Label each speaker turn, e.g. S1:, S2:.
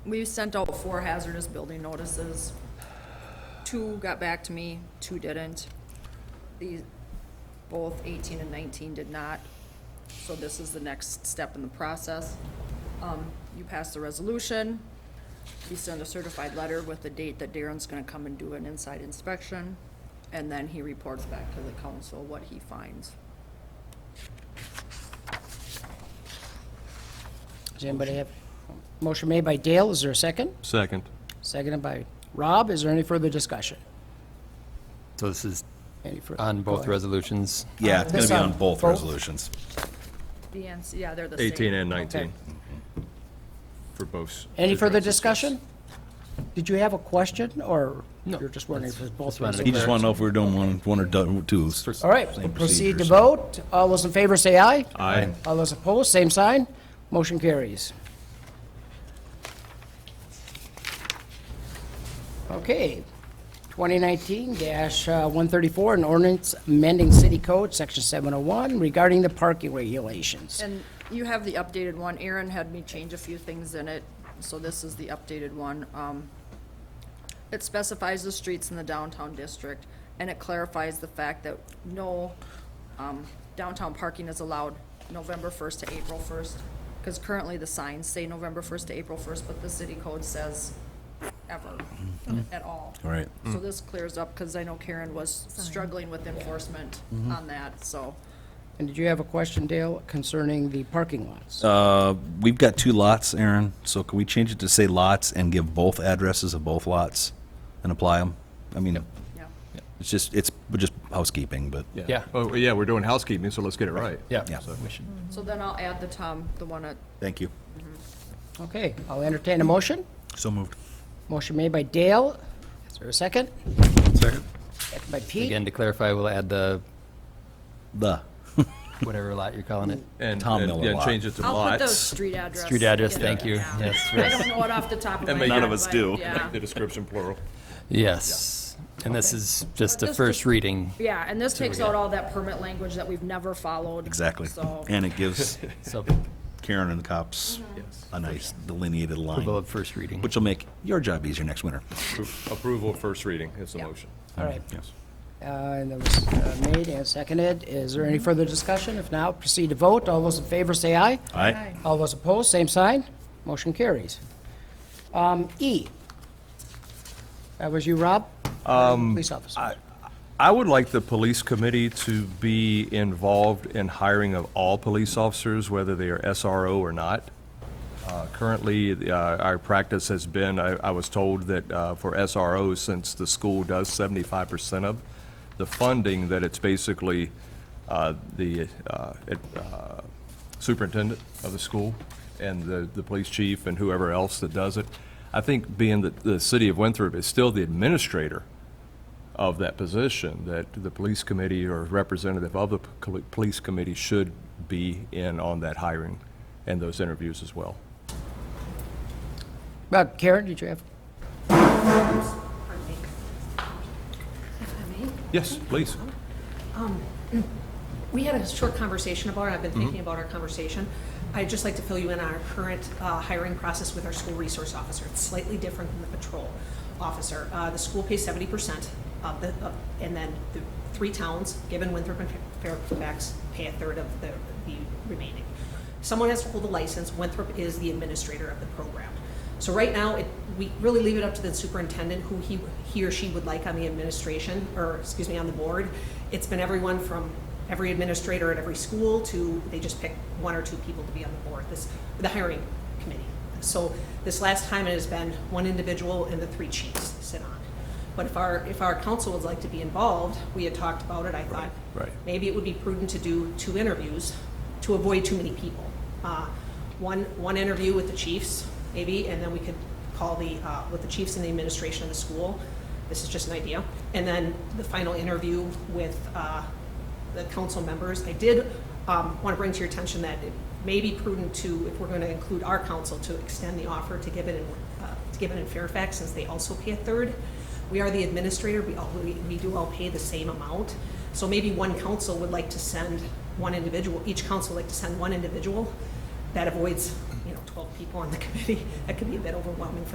S1: We sent out four hazardous building notices. Two got back to me, two didn't. These, both eighteen and nineteen did not. So this is the next step in the process. Um, you pass the resolution. You send a certified letter with the date that Darren's gonna come and do an inside inspection. And then he reports back to the council what he finds.
S2: Does anybody have, motion made by Dale, is there a second?
S3: Second.
S2: Seconded by Rob, is there any further discussion?
S4: So this is
S2: Any further?
S4: on both resolutions?
S5: Yeah, it's gonna be on
S2: This on
S5: both
S2: both?
S5: resolutions.
S1: The ends, yeah, they're the same.
S3: 18 and 19. For both.
S2: Any further discussion? Did you have a question, or you're just wondering if it's both
S4: wanted
S5: He
S2: resolutions?
S5: just wanna know if we're doing one, one or do- two.
S2: All right, we'll proceed to
S5: Same procedure, so-
S2: vote, all those in favor say aye.
S3: Aye.
S2: All those opposed, same sign, motion carries. Okay, 2019-134, uh, an ordinance amending city code, section 701, regarding the parking regulations.
S1: And you have the updated one. Aaron had me change a few things in it, so this is the updated one. Um, It specifies the streets in the downtown district, and it clarifies the fact that no um, downtown parking is allowed November 1st to April 1st, because currently the signs say November 1st to April 1st, but the city code says ever, at all.
S5: Right.
S1: So this clears up, because I know Karen was struggling with enforcement on that, so.
S2: And did you have a question, Dale, concerning the parking lots?
S5: We've got two lots, Aaron, so can we change it to say lots and give both addresses of both lots and apply them? I mean,
S1: Yeah.
S5: it's just, it's just housekeeping, but.
S4: Yeah.
S3: Oh, yeah, we're doing housekeeping, so let's get it right.
S4: Yeah.
S5: Yeah.
S3: So-
S1: So then I'll add the Tom, the one at
S5: Thank you.
S2: Okay, I'll entertain a motion.
S5: So moved.
S2: Motion made by Dale, is there a second?
S5: Second.
S2: Second by Pete.
S4: Again, to clarify, we'll add the,
S5: The.
S4: whatever lot you're calling it.
S3: And,
S5: Tom
S3: and
S5: Miller
S3: yeah,
S5: lot.
S3: change it to
S1: I'll put those
S3: lots.
S1: street address.
S4: Street address,
S1: in
S4: thank
S1: there,
S4: you.
S1: yeah.
S4: Yes,
S1: I don't know it off the top of my head.
S3: And make it- None of
S5: us
S1: but,
S5: do.
S1: Yeah,
S3: The description plural.
S4: Yes. And this is just a
S1: Just-
S4: first reading,
S1: Yeah, and this takes out all that permit language that we've never followed.
S5: Exactly.
S1: So,
S5: And it gives
S4: so
S5: Karen and the cops a nice delineated
S4: approval
S5: line,
S4: of first reading.
S5: which will make your job easier next winter.
S3: Appro- Approval, first reading is the motion.
S2: All right,
S5: Yes.
S2: uh, and that was uh, made and seconded. Is there any further discussion? If not, proceed to vote. All those in favor say aye.
S5: All right.
S2: All those opposed, same sign. Motion carries. Um, E. That was you, Rob? Police officer.
S3: I would like the police committee to be involved in hiring of all police officers, whether they are SRO or not. Uh, Currently, uh, our practice has been, I I was told that uh, for SROs, since the school does 75% of the funding, that it's basically uh, the uh, it, uh, superintendent of the school and the the police chief and whoever else that does it. I think being that the city of Winthrop is still the administrator of that position, that the police committee or representative of the p- col- police committee should be in on that hiring and those interviews as well.
S2: Uh, Karen, did you have?
S3: Yes, please.
S6: We had a short conversation about it, I've been thinking about our conversation. I'd just like to fill you in on our current uh, hiring process with our school resource officer. It's slightly different than the patrol officer. Uh, The school pays seventy percent of the, of- and then the three towns, Gibbon, Winthrop, and Fairfax, pay a third of the the remaining. Someone has to hold a license, Winthrop is the administrator of the program. So right now, it, we really leave it up to the superintendent who he, he or she would like on the administration, or, excuse me, on the board. It's been everyone from every administrator at every school to, they just pick one or two people to be on the board, this, the hiring committee. So this last time, it has been one individual and the three chiefs sit on. But if our, if our council would like to be involved, we had talked about it, I thought,
S3: right.
S6: maybe it would be prudent to do two interviews to avoid too many people. Uh, One, one interview with the chiefs, maybe, and then we could call the, uh, with the chiefs and the administration of the school. This is just an idea. And then the final interview with uh, the council members. I did want to bring to your attention that it may be prudent to, if we're going to include our council, to extend the offer to Gibbon and, uh, to Gibbon and Fairfax, since they also pay a third. We are the administrator, we all, we we do all pay the same amount. So maybe one council would like to send one individual, each council would like to send one individual. That avoids, you know, know, 12 people on the committee, that could be a bit overwhelming for